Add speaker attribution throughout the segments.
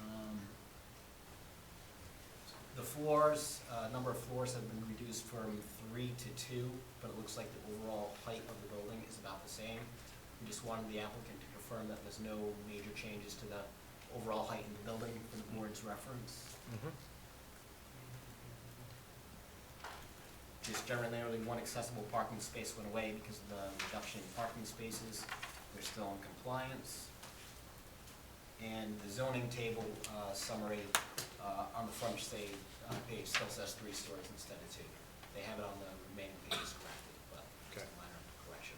Speaker 1: Um, floors, uh, number of floors have been reduced from three to two, but it looks like the overall height of the building is about the same. We just wanted the applicant to confirm that there's no major changes to the overall height in the building for the board's reference. Just generally, one accessible parking space went away because of the reduction in parking spaces. They're still in compliance. And the zoning table uh, summary uh, on the front stage, uh, page still says three stories instead of two. They have it on the remaining pages corrected, but it's a
Speaker 2: Okay.
Speaker 1: minor correction.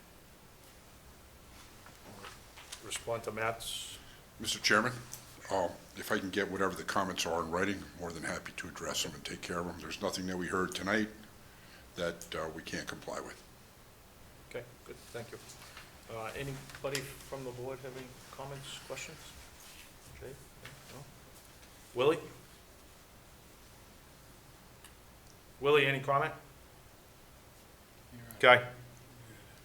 Speaker 2: Respond to Matt's,
Speaker 3: Mr. Chairman, um, if I can get whatever the comments are in writing, I'm more than happy to address them and take care of them. There's nothing that we heard tonight that uh, we can't comply with.
Speaker 2: okay, good, thank you. Uh, Anybody from the board have any comments, questions? Jay? No? Willie? Willie, any comment? Okay,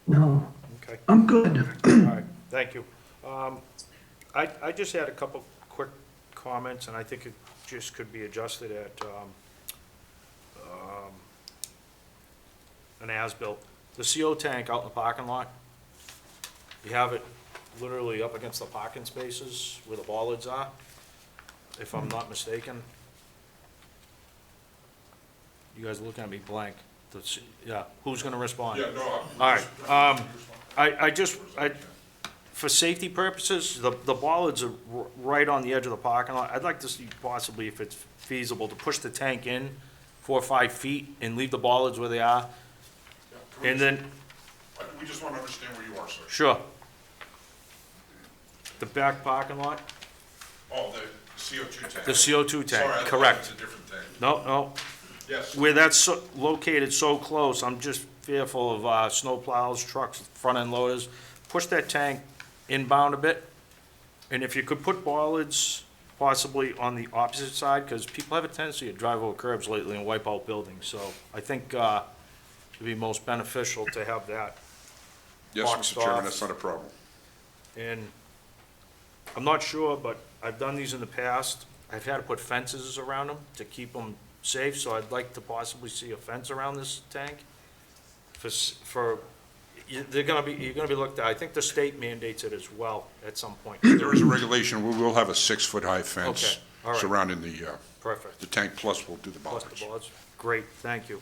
Speaker 4: No,
Speaker 2: okay.
Speaker 4: I'm good.
Speaker 2: All right, thank you. Um, I, I just had a couple quick comments, and I think it just could be adjusted at um, um, an as-built. The CO tank out in the parking lot, you have it literally up against the parking spaces where the bollards are, if I'm not mistaken. You guys are looking at me blank. The s- Yeah, who's gonna respond?
Speaker 3: no.
Speaker 2: All right, um, I, I just, I, for safety purposes, the, the bollards are r- right on the edge of the parking lot. I'd like to see possibly, if it's feasible, to push the tank in four or five feet and leave the bollards where they are. And then,
Speaker 3: Uh, We just want to understand where you are, sir.
Speaker 2: sure. The back parking lot,
Speaker 3: Oh, the CO2 tank.
Speaker 2: the CO2 tank, correct.
Speaker 3: a different tank.
Speaker 2: No, no,
Speaker 3: Yes.
Speaker 2: where that's so- located so close, I'm just fearful of, uh, snow plows, trucks, front-end loaders. Push that tank inbound a bit, and if you could put bollards possibly on the opposite side, because people have a tendency to drive over curbs lately and wipe out buildings, so I think, uh, it'd be most beneficial to have that.
Speaker 3: Yes,
Speaker 2: Boxed
Speaker 3: Mr. Chairman,
Speaker 2: off.
Speaker 3: that's not a problem.
Speaker 2: And I'm not sure, but I've done these in the past. I've had to put fences around them to keep them safe, so I'd like to possibly see a fence around this tank. For, s- for, you- they're gonna be, you're gonna be looked at, I think the state mandates it as well at some point.
Speaker 3: There is a regulation, we will have a six-foot-high fence
Speaker 2: Okay, all right.
Speaker 3: surrounding the, uh,
Speaker 2: Perfect.
Speaker 3: the tank, plus we'll do the
Speaker 2: Plus
Speaker 3: bollards.
Speaker 2: the bollards. Great, thank you.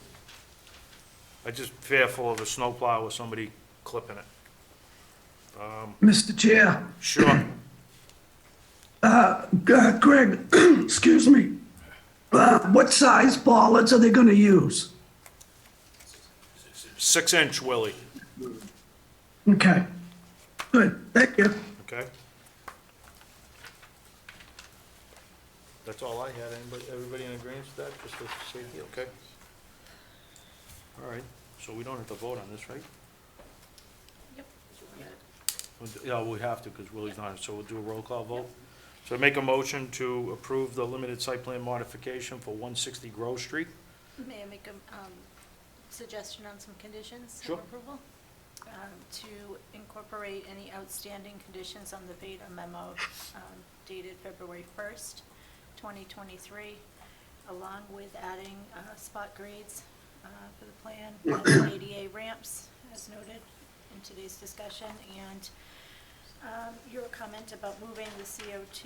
Speaker 2: I just fearful of a snowplow or somebody clipping it.
Speaker 4: Mr. Chair,
Speaker 2: Sure,
Speaker 4: G- Greg, excuse me, Uh, what size bollards are they going to use?
Speaker 2: six-inch Willie,
Speaker 4: Okay, good, thank you.
Speaker 2: okay? That's all I had. Anybody, everybody in agreement with that, just to say, okay? All right, so we don't have to vote on this, right? We'll do- Yeah, we have to, because Willie's not, here, so we'll do a roll call vote. So I make a motion to approve the limited site plan modification for one sixty Grove Street.
Speaker 5: May I make a um, suggestion on some conditions
Speaker 2: Sure.
Speaker 5: of approval? Um, To incorporate any outstanding conditions on the Veda memo um, dated February 1st, 2023, along with adding uh, spot grades uh, for the plan, and ADA ramps, as noted in today's discussion, and um, your comment about moving the CO2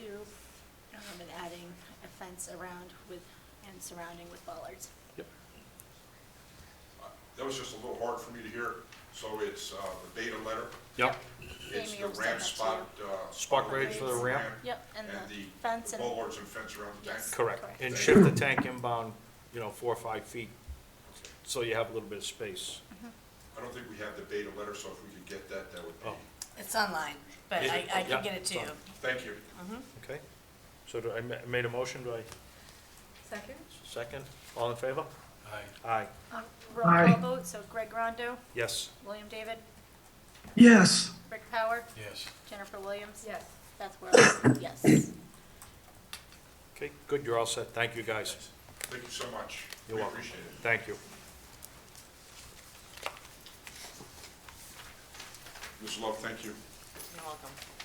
Speaker 5: um, and adding a fence around with, and surrounding with bollards.
Speaker 2: Yep.
Speaker 3: That was just a little hard for me to hear, so it's uh, the beta letter,
Speaker 2: Yep.
Speaker 3: it's
Speaker 5: Amy
Speaker 3: the
Speaker 5: will send
Speaker 3: ramp
Speaker 5: that to
Speaker 3: spot. uh,
Speaker 2: Spot grades for the ramp?
Speaker 5: Yep, and
Speaker 3: And
Speaker 5: the
Speaker 3: the
Speaker 5: fence
Speaker 3: the
Speaker 5: and,
Speaker 3: bollards and fence around the tank.
Speaker 5: Yes.
Speaker 2: Correct,
Speaker 5: Correct.
Speaker 2: and shift the tank inbound, you know, four or five feet, so you have a little bit of space.
Speaker 3: I don't think we have the beta letter, so if we could get that, that would be,
Speaker 2: Oh.
Speaker 6: It's online, but
Speaker 2: Is
Speaker 6: I,
Speaker 2: it?
Speaker 6: I
Speaker 2: Yeah,
Speaker 6: can get it
Speaker 2: it's
Speaker 6: to you.
Speaker 2: on.
Speaker 3: thank you.
Speaker 2: Okay, so do I ma- made a motion, do I
Speaker 6: Second?
Speaker 2: second? All in favor? Aye. Aye,
Speaker 5: um, roll call
Speaker 4: Aye.
Speaker 5: vote, so Greg Rondo,
Speaker 2: yes.
Speaker 5: William David,
Speaker 4: Yes,
Speaker 5: Rick Power,
Speaker 2: Yes.
Speaker 5: Jennifer Williams.
Speaker 6: Yes.
Speaker 5: Beth Wells, yes.
Speaker 2: Okay, good, you're all set, thank you, guys,
Speaker 3: Thank you so much.
Speaker 2: You're
Speaker 3: We
Speaker 2: welcome.
Speaker 3: appreciate it.
Speaker 2: thank you.
Speaker 3: Ms. Love, thank you.
Speaker 6: You're welcome.